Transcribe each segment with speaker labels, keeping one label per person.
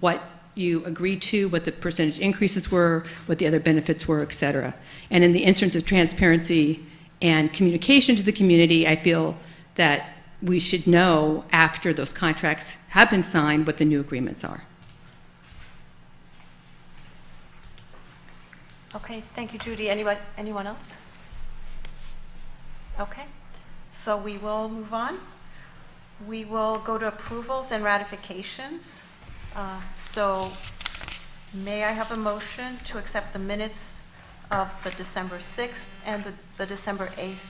Speaker 1: what you agreed to, what the percentage increases were, what the other benefits were, et cetera. And in the instance of transparency and communication to the community, I feel that we should know after those contracts have been signed what the new agreements are.
Speaker 2: Okay, thank you, Judy. Anyone, anyone else? Okay, so we will move on. We will go to approvals and ratifications. Uh, So may I have a motion to accept the minutes of the December 6th and the- the December 8th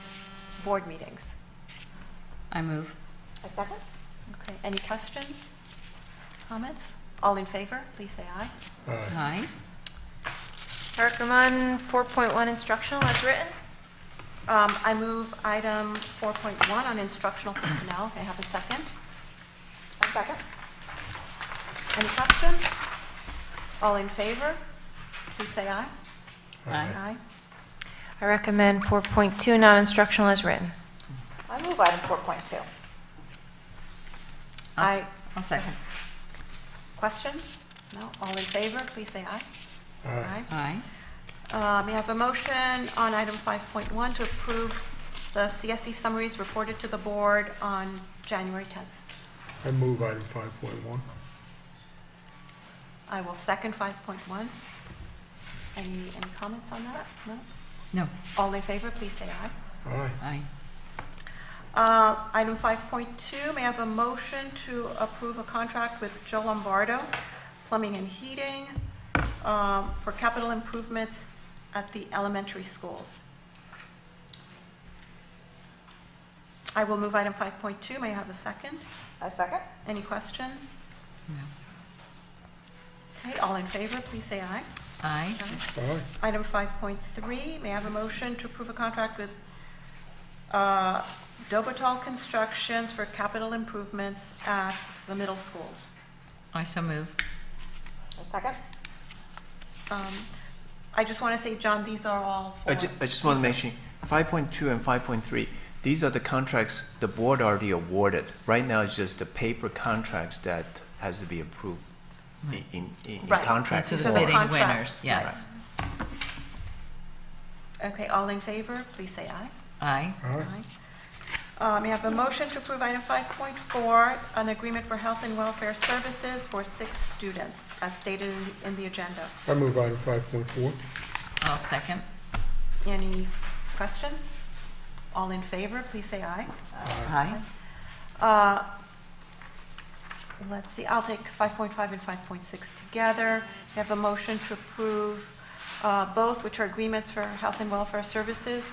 Speaker 2: board meetings?
Speaker 3: I move.
Speaker 2: A second. Okay, any questions, comments? All in favor, please say aye.
Speaker 3: Aye.
Speaker 4: Recommend 4.1 instructional as written.
Speaker 2: Um, I move item 4.1 on instructional personnel. May I have a second? A second. Any questions? All in favor? Please say aye.
Speaker 3: Aye.
Speaker 2: Aye.
Speaker 4: I recommend 4.2 non-instructional as written.
Speaker 2: I move item 4.2. Aye.
Speaker 3: I'll second.
Speaker 2: Questions? No? All in favor? Please say aye. Aye.
Speaker 3: Aye.
Speaker 2: Uh, May I have a motion on item 5.1 to approve the CSE summaries reported to the board on January 10th?
Speaker 5: I move item five point one.
Speaker 2: I will second 5.1. Any, any comments on that? No?
Speaker 3: No,
Speaker 2: All in favor, please say aye.
Speaker 5: Aye.
Speaker 3: aye.
Speaker 2: Uh, Item 5.2, may I have a motion to approve a contract with Joe Lombardo Plumbing and Heating um, for capital improvements at the elementary schools? I will move item 5.2. May I have a second? A second. Any questions?
Speaker 3: No.
Speaker 2: Okay, all in favor, please say aye.
Speaker 3: Aye.
Speaker 5: Aye.
Speaker 2: Item 5.3, may I have a motion to approve a contract with uh, Dobotal Constructions for capital improvements at the middle schools?
Speaker 3: I so move.
Speaker 2: A second. Um, I just want to say, John, these are all for...
Speaker 6: I ju- I just want to mention, five point two and five point three, these are the contracts the board already awarded. Right now, it's just the paper contracts that has to be approved in, in, in
Speaker 2: Right.
Speaker 6: contract
Speaker 3: These are
Speaker 2: So
Speaker 3: the
Speaker 2: the
Speaker 6: form.
Speaker 3: bidding
Speaker 2: contract,
Speaker 3: winners,
Speaker 2: right.
Speaker 3: yes.
Speaker 2: Okay, all in favor, please say aye.
Speaker 3: Aye.
Speaker 5: Aye.
Speaker 2: Aye. Um, May I have a motion to approve item 5.4, an agreement for health and welfare services for six students, as stated in- in the agenda?
Speaker 5: I move item five point four.
Speaker 3: I'll second.
Speaker 2: Any questions? All in favor, please say aye.
Speaker 3: Aye.
Speaker 2: Uh, Let's see, I'll take 5.5 and 5.6 together. We have a motion to approve uh, both, which are agreements for health and welfare services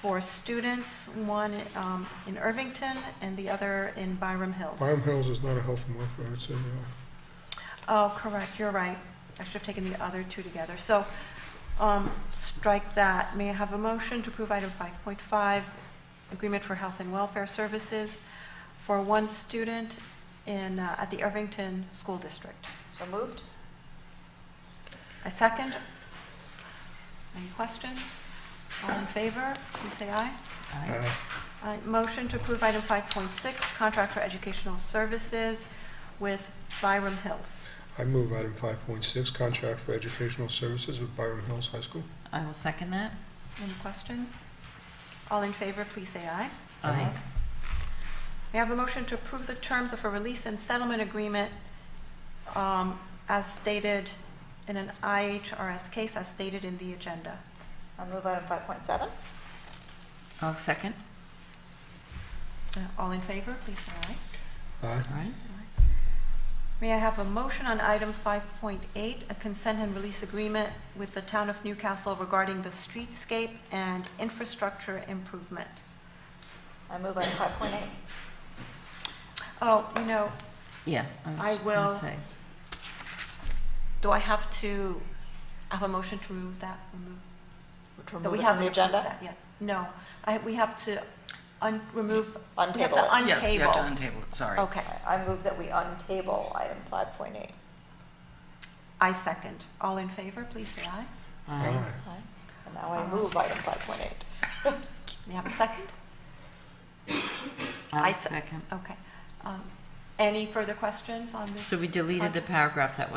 Speaker 2: for students, one um, in Irvington and the other in Byram Hills.
Speaker 5: Byram Hills is not a health and welfare, it's a, uh,
Speaker 2: Oh, correct, you're right. I should have taken the other two together. So um, strike that. May I have a motion to approve item 5.5, Agreement for Health and Welfare Services for one student in, uh, at the Irvington School District? So moved. A second? Any questions? All in favor, please say aye.
Speaker 3: Aye.
Speaker 5: aye.
Speaker 2: All right, Motion to approve item 5.6, Contract for Educational Services with Byram Hills.
Speaker 5: I move item five point six, contract for educational services with Byram Hills High School.
Speaker 3: I will second that.
Speaker 2: Any questions? All in favor, please say aye.
Speaker 3: Aye.
Speaker 2: May I have a motion to approve the terms of a release and settlement agreement um, as stated in an IHRS case as stated in the agenda?
Speaker 7: I'll move item 5.7.
Speaker 3: I'll second.
Speaker 2: Uh, All in favor, please say aye.
Speaker 5: Aye.
Speaker 3: Aye.
Speaker 2: May I have a motion on item 5.8, a consent and release agreement with the Town of Newcastle regarding the streetscape and infrastructure improvement?
Speaker 7: I move item 5.8.
Speaker 2: Oh, you know,
Speaker 3: Yeah. was
Speaker 2: I
Speaker 3: just gonna
Speaker 2: will.
Speaker 3: say.
Speaker 2: do I have to have a motion to remove that, remove
Speaker 7: Which
Speaker 2: That we
Speaker 7: remove it from
Speaker 2: haven't
Speaker 7: the
Speaker 2: approved
Speaker 7: agenda?
Speaker 2: that yet. No, I, we have to un, remove. we have to
Speaker 7: Untable it.
Speaker 3: Yes, you have to
Speaker 2: untable.
Speaker 3: untable it, sorry.
Speaker 2: Okay,
Speaker 7: I move that we untable item 5.8.
Speaker 2: I second. All in favor, please say aye.
Speaker 3: Aye.
Speaker 7: And now I move item 5.8.
Speaker 2: You have a second?
Speaker 3: I'll
Speaker 2: se-
Speaker 3: second.
Speaker 2: Okay. Um,
Speaker 8: Any further questions on this?
Speaker 2: So we deleted the paragraph that was